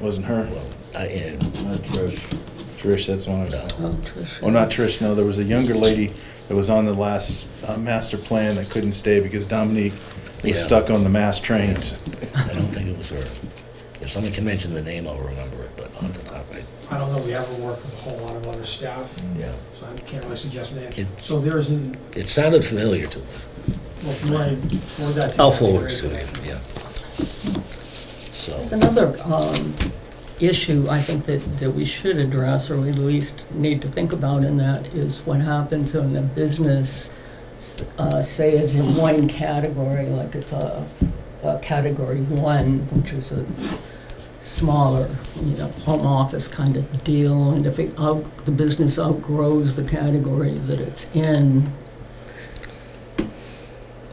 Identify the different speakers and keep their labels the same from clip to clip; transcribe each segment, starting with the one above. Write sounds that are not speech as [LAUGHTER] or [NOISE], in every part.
Speaker 1: Wasn't her.
Speaker 2: I, yeah,
Speaker 3: Not Trish.
Speaker 1: Trish, that's one I was.
Speaker 2: no.
Speaker 4: Oh, Trish.
Speaker 1: Well, not Trish, no, there was a younger lady that was on the last uh, master plan that couldn't stay because Dominique
Speaker 2: Yeah.
Speaker 1: was stuck on the mass trains.
Speaker 2: I don't think it was her. If somebody can mention the name, I'll remember it, but off the top, I,
Speaker 5: I don't know, we haven't worked with a whole lot of other staff,
Speaker 2: yeah.
Speaker 5: so I can't really suggest that.
Speaker 2: It-
Speaker 5: So there isn't,
Speaker 2: It sounded familiar to me.
Speaker 5: well, if you want to forward that to.
Speaker 2: I'll
Speaker 5: Kathy,
Speaker 2: forward
Speaker 5: great.
Speaker 2: it to you, yeah. So,
Speaker 4: There's another um, issue I think that, that we should address, or we at least need to think about, and that is what happens when a business, uh, say, is in one category, like it's a, a category one, which is a smaller, you know, home office kind of deal, and if it out, the business outgrows the category that it's in,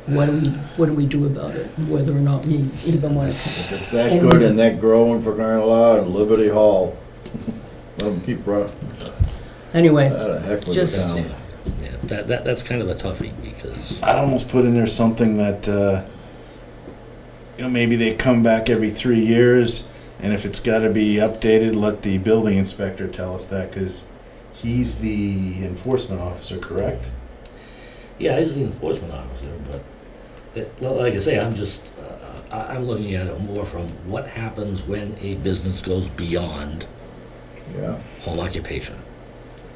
Speaker 4: what do we, what do we do about it, whether or not we even want to
Speaker 3: If it's that good and that growing for crying out loud and Liberty Hall, let them keep running.
Speaker 4: Anyway,
Speaker 3: How the heck with
Speaker 4: Just-
Speaker 3: the town?
Speaker 2: yeah, that, that, that's kind of a toughie because,
Speaker 1: I'd almost put in there something that, uh, you know, maybe they come back every three years, and if it's got to be updated, let the building inspector tell us that, because he's the enforcement officer, correct?
Speaker 2: yeah, he's the enforcement officer, but it, well, like I say, I'm just, uh, I, I'm looking at it more from what happens when a business goes beyond
Speaker 3: Yeah,
Speaker 2: home occupation.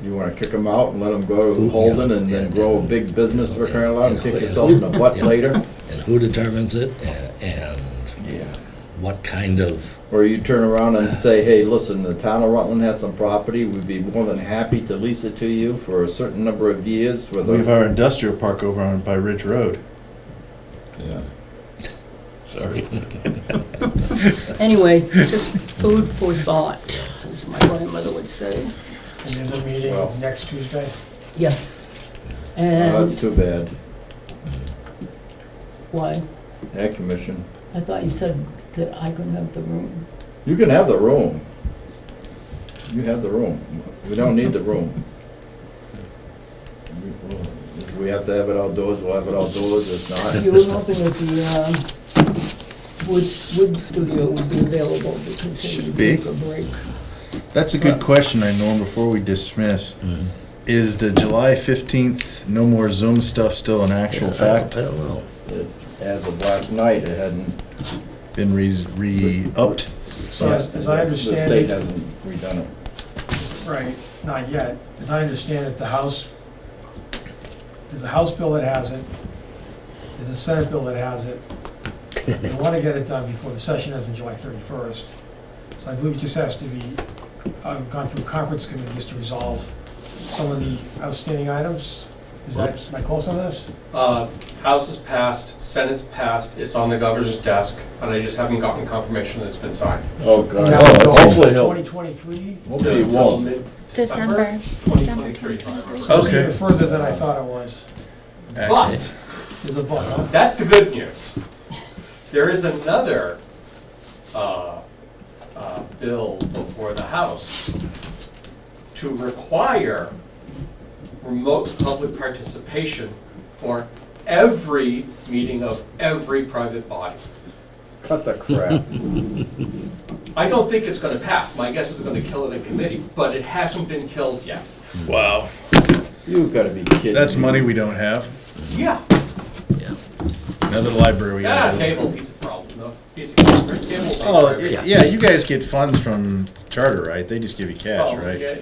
Speaker 3: you wanna kick them out and let them go
Speaker 2: Who-
Speaker 3: to Holden and
Speaker 2: yeah,
Speaker 3: then
Speaker 2: yeah,
Speaker 3: grow a
Speaker 2: yeah.
Speaker 3: big business for
Speaker 2: Yeah,
Speaker 3: crying out loud and
Speaker 2: yeah,
Speaker 3: kick
Speaker 2: yeah.
Speaker 3: yourself in the butt
Speaker 2: Yeah.
Speaker 3: later?
Speaker 2: And who determines it a- and
Speaker 1: Yeah.
Speaker 2: what kind of,
Speaker 3: Or you turn around and say, hey, listen, the town of Rutland has some property, we'd be more than happy to lease it to you for a certain number of years with
Speaker 1: We have
Speaker 3: a.
Speaker 1: our industrial park over on by Ridge Road.
Speaker 3: Yeah.
Speaker 1: Sorry.
Speaker 4: anyway, just food for thought, as my grandmother would say.
Speaker 5: And there's a
Speaker 3: Well.
Speaker 5: meeting next Tuesday.
Speaker 4: Yes.
Speaker 3: Oh, That's
Speaker 4: And
Speaker 3: too bad.
Speaker 4: why?
Speaker 3: That commission.
Speaker 4: I thought you said that I couldn't have the room.
Speaker 3: You can have the room. You have the room. We don't need the room. If we have to have it outdoors, we'll have it outdoors, if
Speaker 4: You were
Speaker 3: not.
Speaker 4: hoping that the uh, wood, wood studio would be available because they
Speaker 1: Should
Speaker 4: would
Speaker 1: be.
Speaker 4: take a break.
Speaker 1: That's a good question, I Norm, before we dismiss.
Speaker 2: hmm,
Speaker 1: Is the July 15th no more Zoom stuff still an actual
Speaker 2: I don't-
Speaker 1: fact?
Speaker 2: I don't know.
Speaker 3: It- As of last night, it hadn't.
Speaker 1: Been re- re-upped?
Speaker 5: So as as I
Speaker 3: The state
Speaker 5: understand it,
Speaker 3: hasn't redone it.
Speaker 5: right, not yet, as I understand it, the House, there's a House bill that has it, there's a Senate bill that has it. They want to get it done before the session ends on July 31st. So I believe it just has to be, uh gone through conference committee just to resolve some of the outstanding items. Is that, am I close on this?
Speaker 6: Uh, House is passed, Senate's passed, it's on the governor's desk, and I just haven't gotten confirmation that it's been signed.
Speaker 3: Oh,
Speaker 5: Now
Speaker 3: God.
Speaker 5: we go
Speaker 3: Hopefully he'll,
Speaker 5: 2023?
Speaker 3: hopefully he
Speaker 6: Until
Speaker 3: won't.
Speaker 6: mid-December
Speaker 7: December, December
Speaker 6: 2023.
Speaker 1: Oh.
Speaker 5: It's even
Speaker 1: Okay.
Speaker 5: Further than I thought it was.
Speaker 1: Excellent.
Speaker 6: But,
Speaker 5: There's a uh, but, huh?
Speaker 6: that's the good news. There is another uh, uh, bill before the House to require remote public participation for every meeting of every private body.
Speaker 3: Cut the crap.
Speaker 6: I don't think it's gonna pass. My guess is it's gonna kill it in committee, but it hasn't been killed yet.
Speaker 1: Wow.
Speaker 3: [LAUGHS] You gotta be kidding me.
Speaker 1: That's money we don't have.
Speaker 6: Yeah.
Speaker 1: Another library we
Speaker 6: Yeah,
Speaker 1: gotta
Speaker 6: Ah, table, piece of problem, no, piece of, cake, table.
Speaker 1: Oh, y- yeah, you guys get funds from charter, right? They just give you cash,
Speaker 6: So,
Speaker 1: right?
Speaker 6: yeah,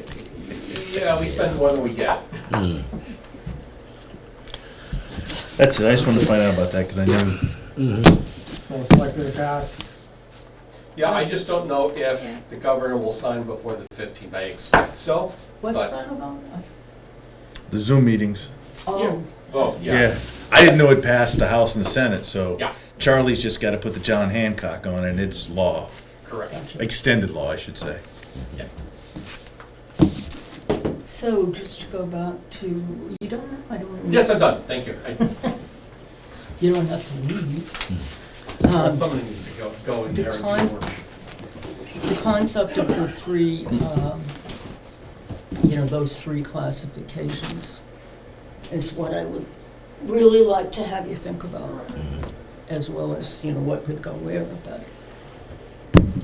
Speaker 6: Yeah, we spend more than we get.
Speaker 1: That's it, I just wanted to find out about that, because I knew,
Speaker 5: So it's likely to pass.
Speaker 6: Yeah, I just don't know if the governor will sign before the fifteenth. I expect so,
Speaker 4: What's
Speaker 6: But-
Speaker 4: that about?
Speaker 1: the Zoom meetings.
Speaker 4: Oh,
Speaker 6: vote, yeah.
Speaker 1: Yeah, I didn't know it passed the House and the Senate, so
Speaker 6: Yeah.
Speaker 1: Charlie's just gotta put the John Hancock on, and it's law,
Speaker 6: Correct.
Speaker 1: extended law, I should say.
Speaker 6: Yeah.
Speaker 4: so just to go back to, you don't, I don't.
Speaker 6: Yes, I'm done, thank you. I-
Speaker 4: You don't have to leave. Um,
Speaker 6: Someone needs to go, go in
Speaker 4: the
Speaker 6: there and do
Speaker 4: cons-
Speaker 6: work.
Speaker 4: the concept of the three, um, you know, those three classifications is what I would really like to have you think about, as well as, you know, what could go where, but